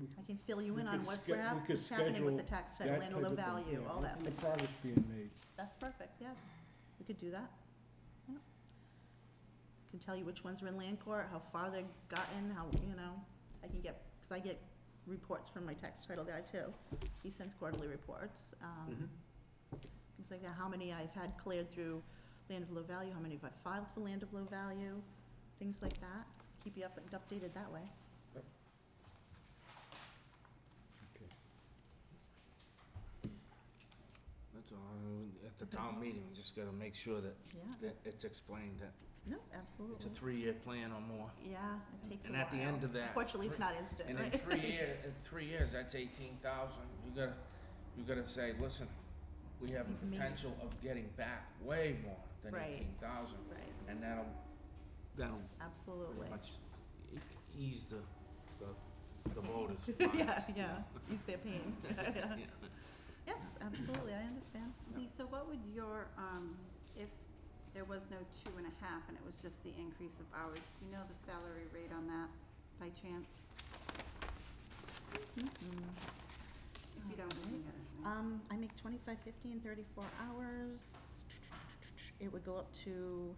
we I can fill you in We on could what's, ske- what hap- we could what's happening with the schedule tax that title and type the of thing, value, yeah, all look that. at The progress being made. That's perfect, yeah. We could do that. Yeah. Can tell you which ones are in land court, how far they've gotten, how, you know, I can get, because I get reports from my tax title guy too. He sends quarterly reports, um, Mm-hmm. things like that, how many I've had cleared through land of low value, how many have I filed for land of low value, things like that. Keep you up and updated that way. That's all, I- at the town meeting, we just gotta make sure that, Yeah, that it's explained that no, it's a absolutely. three-year plan or more. Yeah, it takes a And while. at the end of that. Unfortunately, it's three- not instant, And in right? three year, in three years, that's eighteen thousand, you gotta, you gotta say, listen, we have the Maybe. potential of getting back way more than Right. eighteen thousand. Right, And that'll, that'll absolutely. pretty much e- ease the, the, the voters' minds. Yeah, yeah, ease their pain. Yes, absolutely, I understand. Lee, so what would your, um, if there was no two and a half and it was just the increase of hours, do you know the salary rate on that by chance? If you don't, you can get it. Mm-hmm. Um, I make twenty-five fifty and thirty-four hours. It would go up to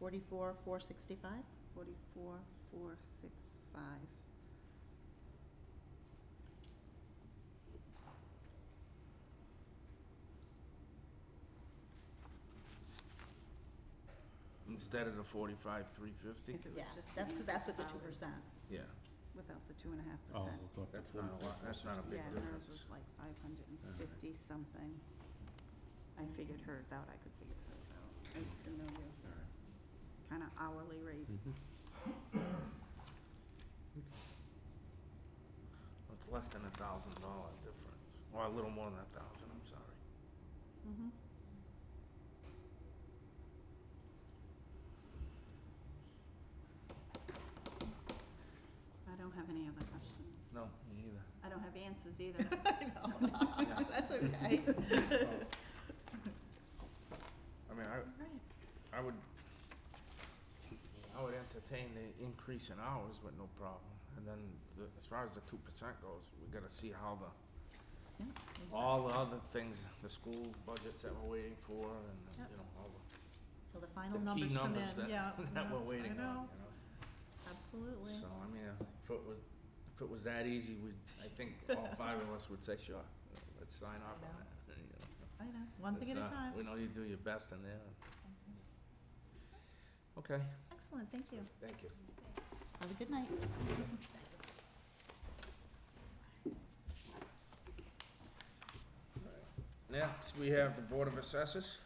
forty-four, four sixty-five. Forty-four, four, six, five. Instead of the forty-five, three fifty, If it was Yes, just the that's, because that's with the hours two percent. yeah, Without the two and a half percent. that's not a lot, that's not a big Yeah, and difference. hers was like five hundred and fifty something. I figured hers out, I could figure hers out. I just didn't know your kind of hourly rate. It's less than a thousand dollar difference, or a little more than a thousand, I'm sorry. Mm-hmm. I don't have any other questions. No, me either. I don't have answers either. I know, that's okay. I mean, I, Right. I would, I would entertain the increase in hours with no problem. And then the, as far as the two percent goes, we gotta see how the, Yeah, all the other things, the school budgets that we're waiting for and, Yep. you know, all Till the final the numbers come key in, numbers that, yeah. that yeah, we're waiting on, I you know? know, absolutely. So, I mean, if it was, if it was that easy, we'd, I think all five of us would say, sure, let's sign off on know. that. you know. I know, one thing at a It's, uh, time. We know you do your best in there. Okay, Excellent, thank you. thank you. Have a good night. Next, we have the Board of Assessors.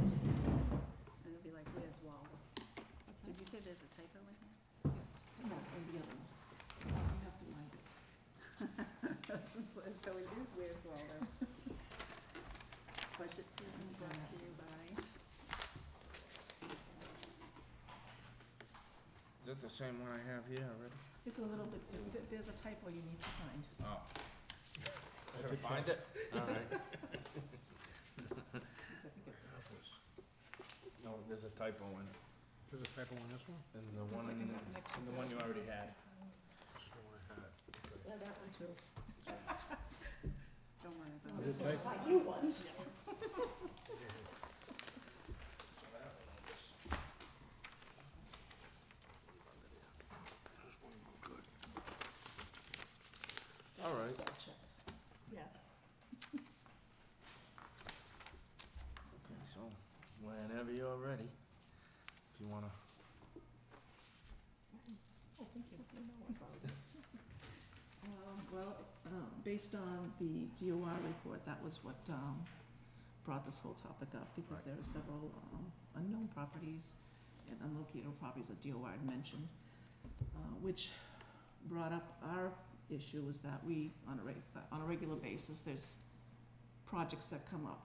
And it'll be like, where's Waldo? Did you say there's a typo in here? Yes. No, in the other one. You have to mind it. So it is where's Waldo. Budget season brought to you by. Is that the same one I have here already? It's a little bit, di- th- there's a typo you need to find. Oh. I That's gotta a find it? Alright. No, there's a typo in it, Is it type on this one? and the one, like in- in the next and the one you already had. Yeah, that one too. Don't worry about Is it. it type, you once. Alright, Yes. okay, so whenever you're ready, if you wanna Oh, thank you. So no one followed. Um, Well, um, based on the DOI report, that was what um, brought this whole topic up, because Right. there are several um, unknown properties and unlocatable properties that DOI had mentioned, uh, which brought up our issue was that we, on a reg, on a regular basis, there's projects that come up